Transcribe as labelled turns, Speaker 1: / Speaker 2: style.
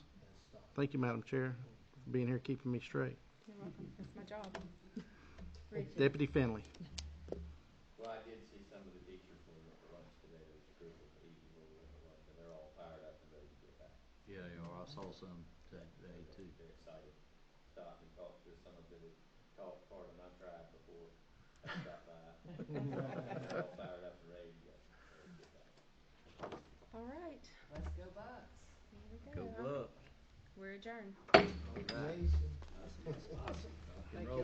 Speaker 1: Thank you, Madam Chair, for being here, keeping me straight.
Speaker 2: You're welcome. That's my job. Read it.
Speaker 1: Deputy Finley.
Speaker 3: Well, I did see some of the teachers when we went to lunch today, there was a group of eight when we went to lunch, and they're all fired up and ready to get back.
Speaker 4: Yeah, they are. I saw some today too.
Speaker 3: They're excited. Stopped and talked to some of them, talked part of my tribe before I stopped by. They're all fired up and ready to go, ready to get back.
Speaker 2: All right.
Speaker 5: Let's go Bucks.
Speaker 2: Here we go.
Speaker 4: up.
Speaker 2: We're adjourned.
Speaker 5: Nation.
Speaker 4: Roll.